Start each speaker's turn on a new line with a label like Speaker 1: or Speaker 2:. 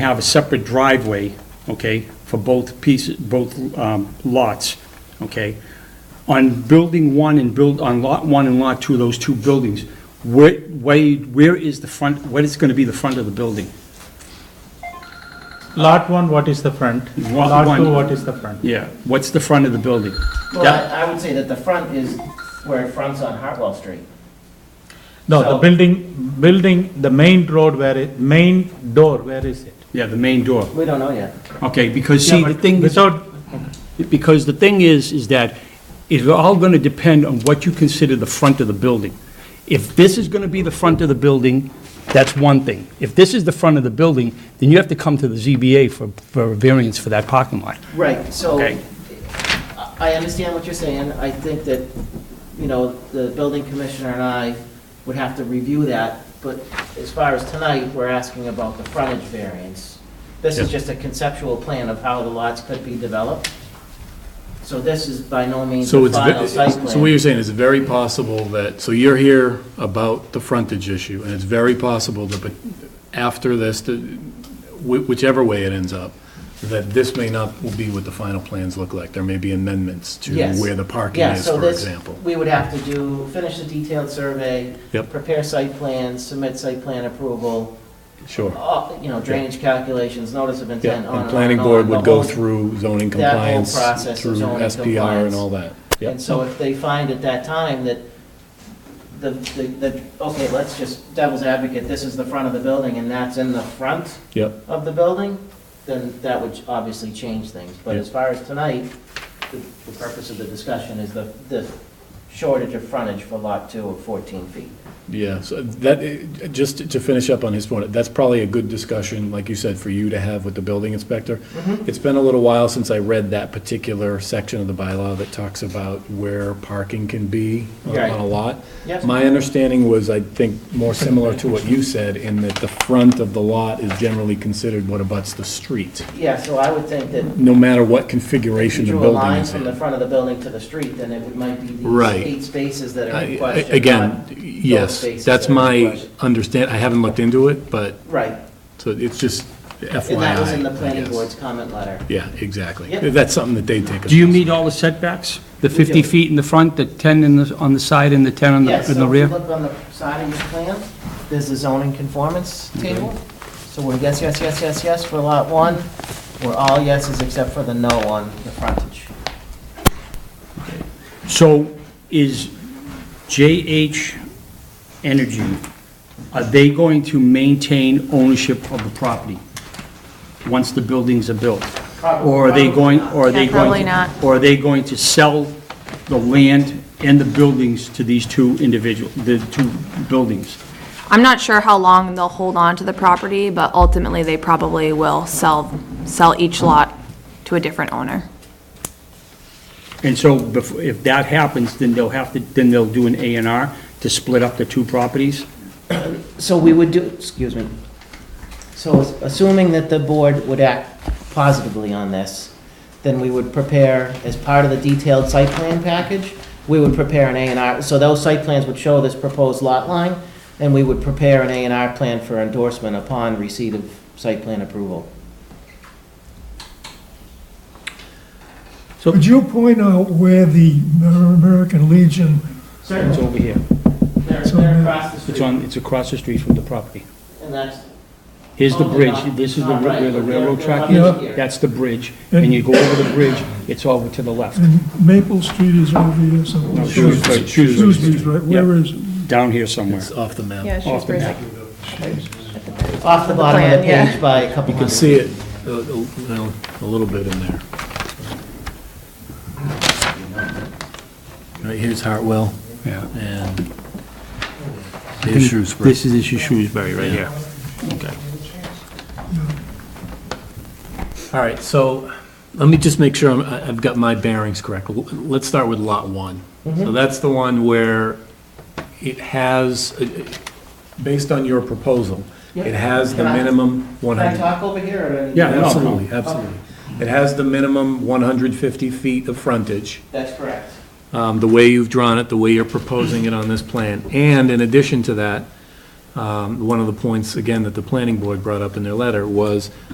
Speaker 1: have a separate driveway, okay, for both pieces, both um, lots, okay? On building one and build, on lot one and lot two, those two buildings, where, where where is the front, what is going to be the front of the building?
Speaker 2: Lot one, what is the front?
Speaker 1: Lot
Speaker 2: Lot two,
Speaker 1: one.
Speaker 2: what is the front?
Speaker 1: Yeah, what's the front of the building?
Speaker 3: Well, I I would say that the front is where it fronts on Hartwell Street.
Speaker 2: No, the
Speaker 3: So-
Speaker 2: building, building, the main road where it, main door, where is it?
Speaker 1: Yeah, the main door,
Speaker 3: We don't know yet.
Speaker 1: okay, because see,
Speaker 2: Yeah,
Speaker 1: the
Speaker 2: but
Speaker 1: thing is,
Speaker 2: Without,
Speaker 1: because the thing is, is that it's all going to depend on what you consider the front of the building. If this is going to be the front of the building, that's one thing. If this is the front of the building, then you have to come to the ZBA for, for a variance for that parking lot.
Speaker 3: Right, so,
Speaker 1: Okay.
Speaker 3: I- I understand what you're saying. I think that, you know, the building commissioner and I would have to review that, but as far as tonight, we're asking about the frontage variance. This is
Speaker 1: Yeah.
Speaker 3: just a conceptual plan of how the lots could be developed. So this is by no means
Speaker 4: So
Speaker 3: a
Speaker 4: it's,
Speaker 3: final
Speaker 4: ve-
Speaker 3: site plan.
Speaker 4: so what you're saying is very possible that, so you're here about the frontage issue, and it's very possible that, but after this, the- whi- whichever way it ends up, that this may not be what the final plans look like. There may be amendments to
Speaker 3: Yes.
Speaker 4: where the parking
Speaker 3: Yeah,
Speaker 4: is,
Speaker 3: so
Speaker 4: for
Speaker 3: this,
Speaker 4: example.
Speaker 3: we would have to do, finish the detailed survey.
Speaker 4: Yep.
Speaker 3: Prepare site plans, submit site plan approval,
Speaker 4: Sure.
Speaker 3: all- you know, drainage calculations, notice of
Speaker 4: Yeah,
Speaker 3: intent, on and on.
Speaker 4: and planning
Speaker 3: and on,
Speaker 4: board
Speaker 3: the
Speaker 4: would go
Speaker 3: whole-
Speaker 4: through zoning
Speaker 3: that whole
Speaker 4: compliance,
Speaker 3: process of
Speaker 4: through
Speaker 3: zoning
Speaker 4: SPR
Speaker 3: compliance.
Speaker 4: and all that. Yep.
Speaker 3: And so if they find at that time that the, the, the okay, let's just devil's advocate, this is the front of the building and that's in the front
Speaker 4: Yep,
Speaker 3: of the building, then that would obviously change things. But
Speaker 4: Yeah.
Speaker 3: as far as tonight, the, the purpose of the discussion is the, the shortage of frontage for lot two of 14 feet.
Speaker 4: yeah, so that, eh, just to finish up on his point, that's probably a good discussion, like you said, for you to have with the building inspector.
Speaker 3: Mm-hmm.
Speaker 4: It's been a little while since I read that particular section of the bylaw that talks about where parking can be on
Speaker 3: Right.
Speaker 4: on a lot.
Speaker 3: Yep.
Speaker 4: My understanding was, I think, more similar to what you said, in that the front of the lot is generally considered what abuts the street,
Speaker 3: Yeah, so I would think that
Speaker 4: no matter what
Speaker 3: if you
Speaker 4: configuration the
Speaker 3: drew a
Speaker 4: building
Speaker 3: line
Speaker 4: is
Speaker 3: from
Speaker 4: in.
Speaker 3: the front of the building to the street, then it would- might be these
Speaker 4: Right.
Speaker 3: eight spaces that are
Speaker 4: I-
Speaker 3: in
Speaker 4: I-
Speaker 3: question.
Speaker 4: Again,
Speaker 3: not those
Speaker 4: yes,
Speaker 3: spaces
Speaker 4: that's
Speaker 3: that are in
Speaker 4: my
Speaker 3: question.
Speaker 4: understand, I haven't looked into it, but,
Speaker 3: Right,
Speaker 4: so it's just FYI.
Speaker 3: and that was in the
Speaker 4: I
Speaker 3: planning
Speaker 4: guess.
Speaker 3: board's comment letter.
Speaker 4: Yeah, exactly.
Speaker 3: Yep.
Speaker 4: That's something that they take.
Speaker 1: Do you
Speaker 4: us-
Speaker 1: meet all the setbacks? The
Speaker 3: do.
Speaker 1: 50 feet in the front, the 10 in the, on the side, and the 10 on
Speaker 3: Yeah,
Speaker 1: the,
Speaker 3: so
Speaker 1: in
Speaker 3: if
Speaker 1: the
Speaker 3: you
Speaker 1: rear?
Speaker 3: look on the side of your plan, there's the zoning conformance table. So we're yes, yes, yes, yes, yes for lot one, we're all yeses except for the no on the frontage.
Speaker 1: So is JH Energy, are they going to maintain ownership of the property once the buildings are built? Or are they going, or are they going?
Speaker 5: Yeah, probably
Speaker 1: to-
Speaker 5: not.
Speaker 1: Or are they going to sell the land and the buildings to these two individual, the two buildings?
Speaker 5: I'm not sure how long they'll hold on to the property, but ultimately, they probably will sell, sell each lot to a different owner.
Speaker 1: And so bef- if that happens, then they'll have to, then they'll do an A and R to split up the two properties?
Speaker 3: So we would do, excuse me. So assuming that the board would act positively on this, then we would prepare, as part of the detailed site plan package, we would prepare an A and R, so those site plans would show this proposed lot line, and we would prepare an A and R plan for endorsement upon receipt of site plan approval.
Speaker 6: Would you point out where the American Legion,
Speaker 1: It's over here.
Speaker 3: They're,
Speaker 6: So they're
Speaker 3: across the
Speaker 1: It's on, it's across the street from the property.
Speaker 3: and that's.
Speaker 1: Here's the
Speaker 3: Oh,
Speaker 1: bridge,
Speaker 3: yeah.
Speaker 1: this is the,
Speaker 3: All
Speaker 1: ri-
Speaker 3: right,
Speaker 1: where the
Speaker 3: but they're-
Speaker 1: railroad
Speaker 3: they're
Speaker 1: track
Speaker 3: not
Speaker 6: up
Speaker 3: here.
Speaker 1: is, that's the bridge, and you go over the bridge, it's over to the left,
Speaker 6: and Maple Street is over here somewhere?
Speaker 1: No, Shrewsbury- Shrewsbury.
Speaker 6: Shrewsbury's right, where is it?
Speaker 1: down here somewhere.
Speaker 4: It's off the map.
Speaker 7: Yeah,
Speaker 1: Off the
Speaker 7: Shrewsbury's
Speaker 1: map.
Speaker 7: like,
Speaker 3: Off the bottom of the
Speaker 7: plan, yeah.
Speaker 3: page by a couple
Speaker 4: You can
Speaker 3: hundred.
Speaker 4: see it, uh, a- a- well, a little bit in there. Right here's Hartwell,
Speaker 1: Yeah.
Speaker 4: and here's Shrewsbury.
Speaker 1: This is, this is Shrewsbury right here.
Speaker 4: All right, so let me just make sure I'm- I- I've got my bearings correct. L- Let's start with Lot 1.
Speaker 1: Mm-hmm.
Speaker 4: So that's the one where it has, uh, uh, based on your proposal, it
Speaker 3: Yep.
Speaker 4: has the
Speaker 3: Can I-
Speaker 4: minimum 100.
Speaker 3: Can I talk over here, or?
Speaker 1: Yeah, no, no.
Speaker 4: Absolutely, absolutely. It has the minimum 150 feet of frontage,
Speaker 3: That's correct.
Speaker 4: um, the way you've drawn it, the way you're proposing it on this plan. And in addition to that, um, one of the points, again, that the planning board brought up in their letter was